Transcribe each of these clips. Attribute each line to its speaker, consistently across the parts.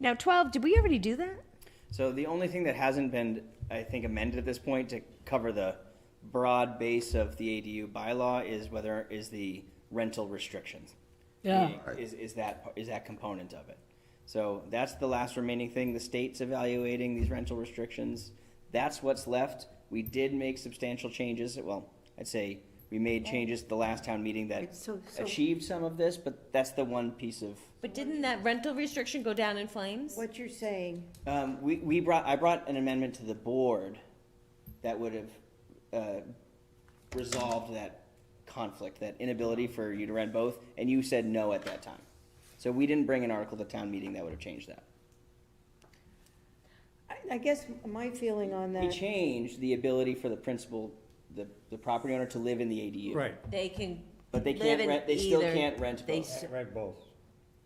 Speaker 1: Now, 12, did we already do that?
Speaker 2: So the only thing that hasn't been, I think, amended at this point to cover the broad base of the ADU bylaw is whether, is the rental restrictions.
Speaker 3: Yeah.
Speaker 2: Is, is that, is that component of it. So that's the last remaining thing. The state's evaluating these rental restrictions. That's what's left. We did make substantial changes. Well, I'd say we made changes at the last town meeting that
Speaker 4: So- so-
Speaker 2: achieved some of this, but that's the one piece of
Speaker 5: But didn't that rental restriction go down in flames?
Speaker 4: What you're saying,
Speaker 2: Um, we, we brought, I brought an amendment to the board that would have, uh, resolved that conflict, that inability for you to rent both, and you said no at that time. So we didn't bring an article to town meeting that would have changed that.
Speaker 4: I, I guess my feeling on
Speaker 2: We
Speaker 4: that,
Speaker 2: changed the ability for the principal, the, the property owner to live in the ADU.
Speaker 6: Right,
Speaker 5: They can.
Speaker 2: But they
Speaker 5: live
Speaker 2: can't
Speaker 5: in
Speaker 2: rent- they still
Speaker 5: either-
Speaker 2: can't rent
Speaker 5: they
Speaker 2: both.
Speaker 5: s-
Speaker 6: right, both.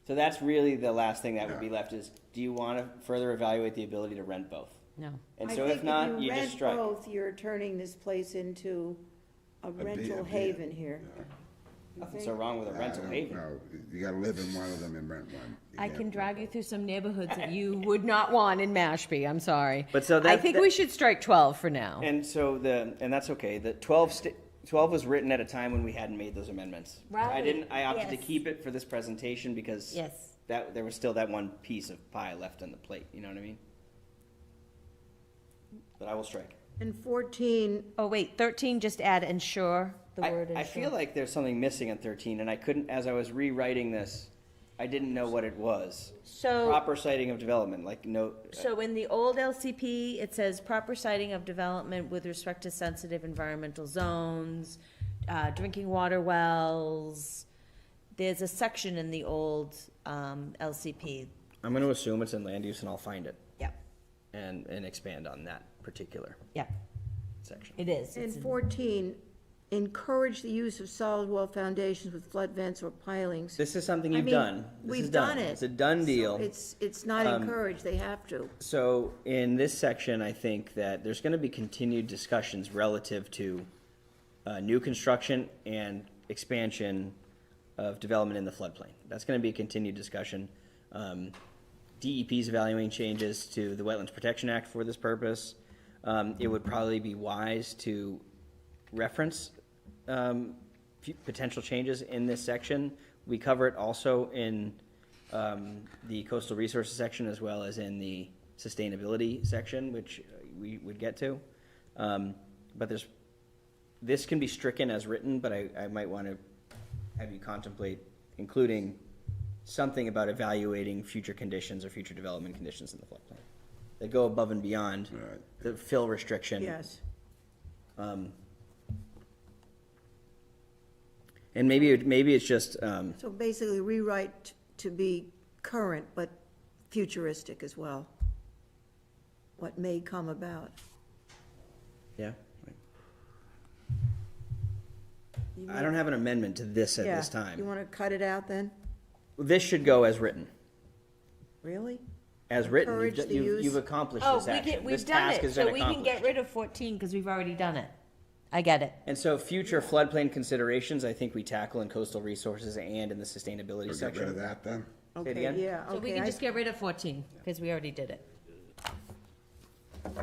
Speaker 2: So that's really the last thing that would be left is, do you wanna further evaluate the ability to rent both?
Speaker 5: No.
Speaker 2: And
Speaker 4: I
Speaker 2: so if
Speaker 4: think
Speaker 2: not,
Speaker 4: if
Speaker 2: you
Speaker 4: you
Speaker 2: just
Speaker 4: rent
Speaker 2: strike.
Speaker 4: both, you're turning this place into a
Speaker 7: B- a
Speaker 4: rental
Speaker 7: B-
Speaker 4: haven here.
Speaker 2: Nothing so wrong with a rental haven.
Speaker 7: No, you gotta live in one of them and rent one. You
Speaker 5: I
Speaker 7: can't-
Speaker 5: can drag you through some neighborhoods that you would not want in Mashpee, I'm sorry.
Speaker 2: But so
Speaker 5: I
Speaker 2: that-
Speaker 5: think
Speaker 2: that-
Speaker 5: we should strike twelve for now.
Speaker 2: And so the, and that's okay, the twelve sta- twelve was written at a time when we hadn't made those amendments. I
Speaker 5: Right,
Speaker 2: didn't, I opted to
Speaker 5: yes.
Speaker 2: keep it for this presentation because.
Speaker 5: Yes.
Speaker 2: That, there was still that one piece of pie left on the plate, you know what I mean? But I will strike.
Speaker 4: And fourteen,
Speaker 5: Oh, wait, thirteen, just add ensure, the
Speaker 2: I,
Speaker 5: word ensure.
Speaker 2: I feel like there's something missing in thirteen, and I couldn't, as I was rewriting this, I didn't know what it was.
Speaker 5: So,
Speaker 2: Proper citing of development, like no, uh,
Speaker 5: so in the old LCP, it says proper siting of development with respect to sensitive environmental zones, uh, drinking water wells. There's a section in the old, um, LCP.
Speaker 2: I'm gonna assume it's in land use and I'll find it
Speaker 5: Yep,
Speaker 2: and, and expand on that particular
Speaker 5: yep,
Speaker 2: section.
Speaker 5: it is.
Speaker 4: and
Speaker 5: It's in-
Speaker 4: fourteen, encourage the use of solid wall foundations with flood vents or pilings.
Speaker 2: This is something
Speaker 4: I
Speaker 2: you've
Speaker 4: mean,
Speaker 2: done. This
Speaker 4: We've
Speaker 2: is done.
Speaker 4: done it.
Speaker 2: It's a done
Speaker 4: So
Speaker 2: deal. Um,
Speaker 4: It's, it's not encouraged, they have to.
Speaker 2: So in this section, I think that there's going to be continued discussions relative to uh, new construction and expansion of development in the floodplain. That's going to be a continued discussion. Um, DEP's evaluating changes to the Wetlands Protection Act for this purpose. Um, It would probably be wise to reference um, fu- potential changes in this section. We cover it also in um, the coastal resources section as well as in the sustainability section, which uh, we would get to. Um, But there's, this can be stricken as written, but I, I might want to have you contemplate including something about evaluating future conditions or future development conditions in the floodplain that go above and beyond
Speaker 7: Right.
Speaker 2: the fill restriction.
Speaker 4: Yes.
Speaker 2: And maybe, it- maybe it's just, um,
Speaker 4: So basically rewrite to be current, but futuristic as well. What may come about.
Speaker 2: yeah. I don't have an amendment to this at this
Speaker 4: Yeah. You
Speaker 2: time.
Speaker 4: want to cut it out then?
Speaker 2: This should go as written.
Speaker 4: Really?
Speaker 2: As written, you've,
Speaker 4: Encourage
Speaker 2: d-
Speaker 4: the
Speaker 2: you've,
Speaker 4: use-
Speaker 2: you've accomplished
Speaker 5: Oh,
Speaker 2: this
Speaker 5: we
Speaker 2: action.
Speaker 5: did,
Speaker 2: This
Speaker 5: we've done
Speaker 2: task
Speaker 5: it,
Speaker 2: has
Speaker 5: so
Speaker 2: been
Speaker 5: we can get
Speaker 2: accomplished.
Speaker 5: rid of fourteen, because we've already done it. I get it.
Speaker 2: And so future floodplain considerations, I think we tackle in coastal resources and in the sustainability
Speaker 7: So Get rid
Speaker 2: section.
Speaker 7: of that then?
Speaker 2: Say it
Speaker 4: Okay,
Speaker 2: again?
Speaker 4: Yeah,
Speaker 5: So we
Speaker 4: okay.
Speaker 5: can
Speaker 4: I-
Speaker 5: just get rid of fourteen, because we already did it.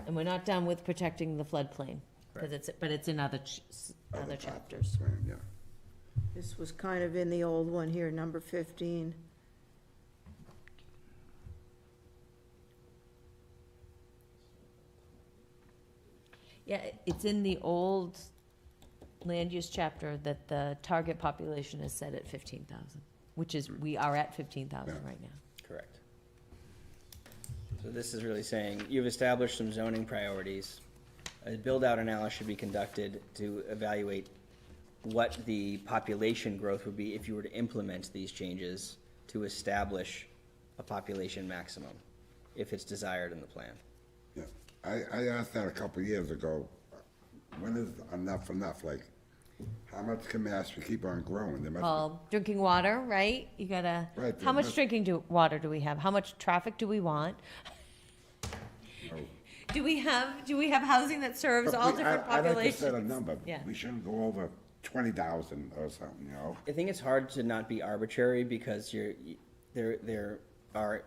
Speaker 5: And we're not done with protecting the floodplain, because it's, but it's in other, ch- s- other chapters.
Speaker 7: Plan, Yeah.
Speaker 4: This was kind of in the old one here, number fifteen.
Speaker 5: Yeah, it's in the old land use chapter that the target population is set at fifteen thousand, which is, we are at fifteen thousand right now.
Speaker 2: Correct. So this is really saying, you've established some zoning priorities. A build-out analysis should be conducted to evaluate what the population growth would be if you were to implement these changes to establish a population maximum, if it's desired in the plan.
Speaker 7: Yeah, I, I asked that a couple of years ago, when is enough enough, like, how much can Mashpee keep on growing? There must
Speaker 5: Well, drinking water, right? You gotta,
Speaker 7: Right,
Speaker 5: how much
Speaker 7: that's-
Speaker 5: drinking do, water do we have? How much traffic do we want?
Speaker 7: Oh. be. no.
Speaker 5: Do we have, do we have housing that serves all
Speaker 7: But we- I-
Speaker 5: different
Speaker 7: I'd like to set a
Speaker 5: populations?
Speaker 7: number,
Speaker 5: Yeah.
Speaker 7: we shouldn't go over twenty thousand or something, you know?
Speaker 2: I think it's hard to not be arbitrary because you're, there, there are